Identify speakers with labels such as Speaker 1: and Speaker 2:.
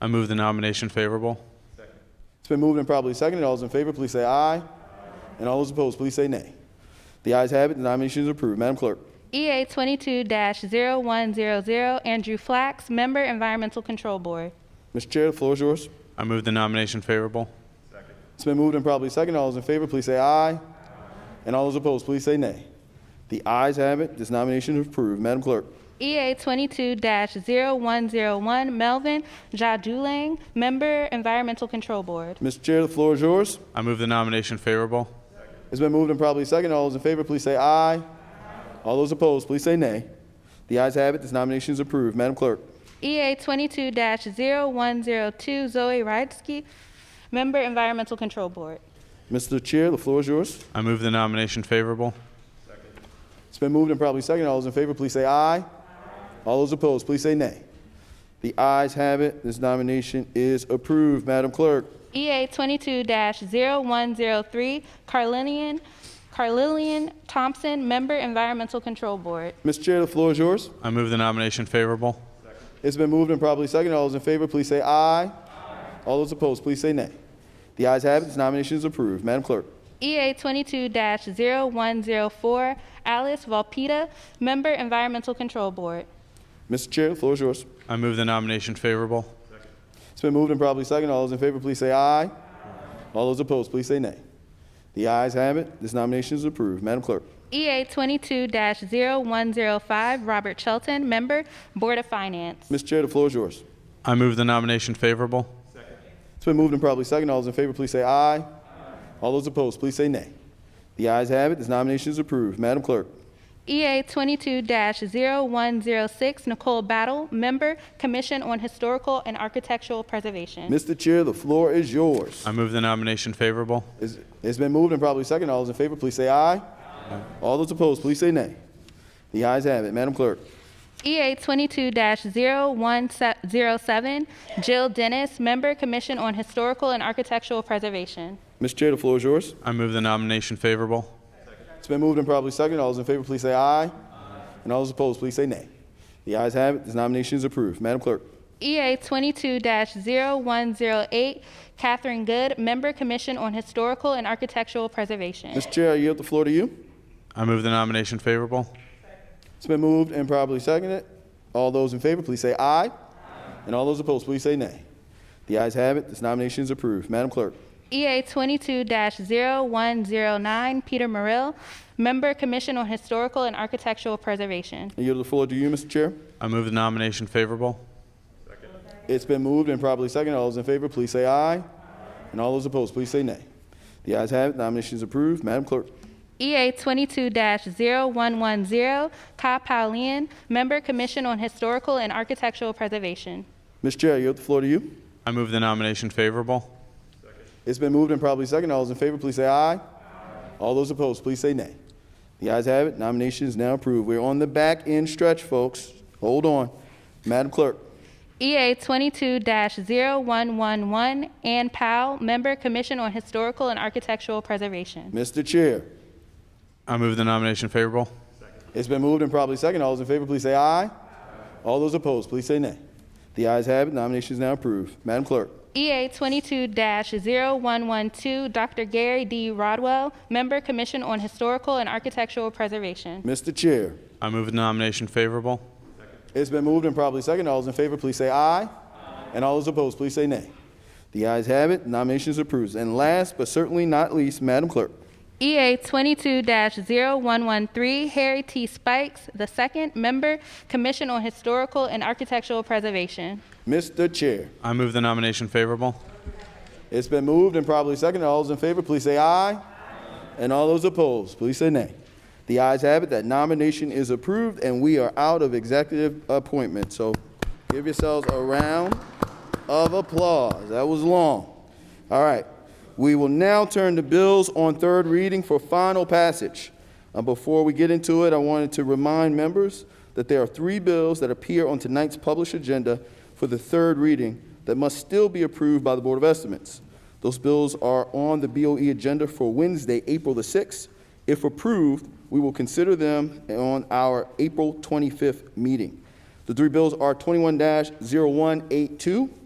Speaker 1: I move the nomination favorable.
Speaker 2: It's been moved and probably seconded. All those in favor, please say aye. And all those opposed, please say nay. The ayes have it, the nomination is approved. Madam Clerk.
Speaker 3: EA 22-0100, Andrew Flax, Member Environmental Control Board.
Speaker 2: Mr. Chair, the floor is yours.
Speaker 1: I move the nomination favorable.
Speaker 2: It's been moved and probably seconded. All those in favor, please say aye. And all those opposed, please say nay. The ayes have it, this nomination is approved. Madam Clerk.
Speaker 3: EA 22-0101, Melvin Jadulang, Member Environmental Control Board.
Speaker 2: Mr. Chair, the floor is yours.
Speaker 1: I move the nomination favorable.
Speaker 2: It's been moved and probably seconded. All those in favor, please say aye. All those opposed, please say nay. The ayes have it, this nomination is approved. Madam Clerk.
Speaker 3: EA 22-0102, Zoe Rydsky, Member Environmental Control Board.
Speaker 2: Mr. Chair, the floor is yours.
Speaker 1: I move the nomination favorable.
Speaker 2: It's been moved and probably seconded. All those in favor, please say aye. All those opposed, please say nay. The ayes have it. This nomination is approved. Madam Clerk,
Speaker 3: EA 22-0103, Carlinian, Carlillian Thompson, Member Environmental Control Board.
Speaker 2: Mr. Chair, the floor is yours.
Speaker 1: I move the nomination favorable.
Speaker 2: It's been moved and probably seconded. All those in favor, please say aye. All those opposed, please say nay. The ayes have it. This nomination is approved. Madam Clerk,
Speaker 3: EA 22-0104, Alice Volpita, Member Environmental Control Board.
Speaker 2: Mr. Chair, the floor is yours.
Speaker 1: I move the nomination favorable.
Speaker 2: It's been moved and probably seconded. All those in favor, please say aye. All those opposed, please say nay. The ayes have it. This nomination is approved. Madam Clerk,
Speaker 3: EA 22-0105, Robert Chelton, Member Board of Finance.
Speaker 2: Mr. Chair, the floor is yours.
Speaker 1: I move the nomination favorable.
Speaker 2: It's been moved and probably seconded. All those in favor, please say aye. All those opposed, please say nay. The ayes have it. This nomination is approved. Madam Clerk.
Speaker 3: EA 22-0106, Nicole Battle, Member Commission on Historical and Architectural Preservation.
Speaker 2: Mr. Chair, the floor is yours.
Speaker 1: I move the nomination favorable.
Speaker 2: It's- it's been moved and probably seconded. All those in favor, please say aye. All those opposed, please say nay. The ayes have it. Madam Clerk.
Speaker 3: EA 22-0107, Jill Dennis, Member Commission on Historical and Architectural Preservation.
Speaker 2: Mr. Chair, the floor is yours.
Speaker 1: I move the nomination favorable.
Speaker 2: It's been moved and probably seconded. All those in favor, please say aye. And all those opposed, please say nay. The ayes have it. This nomination is approved. Madam Clerk.
Speaker 3: EA 22-0108, Catherine Good, Member Commission on Historical and Architectural Preservation.
Speaker 2: Mr. Chair, I yield the floor to you.
Speaker 1: I move the nomination favorable.
Speaker 2: It's been moved and probably seconded. All those in favor, please say aye. And all those opposed, please say nay. The ayes have it. This nomination is approved. Madam Clerk.
Speaker 3: EA 22-0109, Peter Morrill, Member Commission on Historical and Architectural Preservation.
Speaker 2: I yield the floor to you, Mr. Chair.
Speaker 1: I move the nomination favorable.
Speaker 2: It's been moved and probably seconded. All those in favor, please say aye. And all those opposed, please say nay. The ayes have it. Nomination is approved. Madam Clerk.
Speaker 3: EA 22-0110, Ka Paulian, Member Commission on Historical and Architectural Preservation.
Speaker 2: Mr. Chair, I yield the floor to you.
Speaker 1: I move the nomination favorable.
Speaker 2: It's been moved and probably seconded. All those in favor, please say aye. All those opposed, please say nay. The ayes have it. Nomination is now approved. We're on the back end stretch, folks. Hold on. Madam Clerk.
Speaker 3: EA 22-0111, Ann Powell, Member Commission on Historical and Architectural Preservation.
Speaker 2: Mr. Chair.
Speaker 1: I move the nomination favorable.
Speaker 2: It's been moved and probably seconded. All those in favor, please say aye. All those opposed, please say nay. The ayes have it. Nomination is now approved. Madam Clerk.
Speaker 3: EA 22-0112, Dr. Gary D. Rodwell, Member Commission on Historical and Architectural Preservation.
Speaker 2: Mr. Chair.
Speaker 1: I move the nomination favorable.
Speaker 2: It's been moved and probably seconded. All those in favor, please say aye. And all those opposed, please say nay. The ayes have it. Nomination is approved. And last but certainly not least, Madam Clerk.
Speaker 3: EA 22-0113, Harry T. Spikes II, Member Commission on Historical and Architectural Preservation.
Speaker 2: Mr. Chair.
Speaker 1: I move the nomination favorable.
Speaker 2: It's been moved and probably seconded. All those in favor, please say aye. And all those opposed, please say nay. The ayes have it. That nomination is approved, and we are out of executive appointment. So give yourselves a round of applause. That was long. All right. We will now turn to bills on third reading for final passage. Uh, before we get into it, I wanted to remind members that there are three bills that appear on tonight's published agenda for the third reading that must still be approved by the Board of Estimates. Those bills are on the BOE agenda for Wednesday, April the 6th. If approved, we will consider them on our April 25th meeting. The three bills are 21 0182,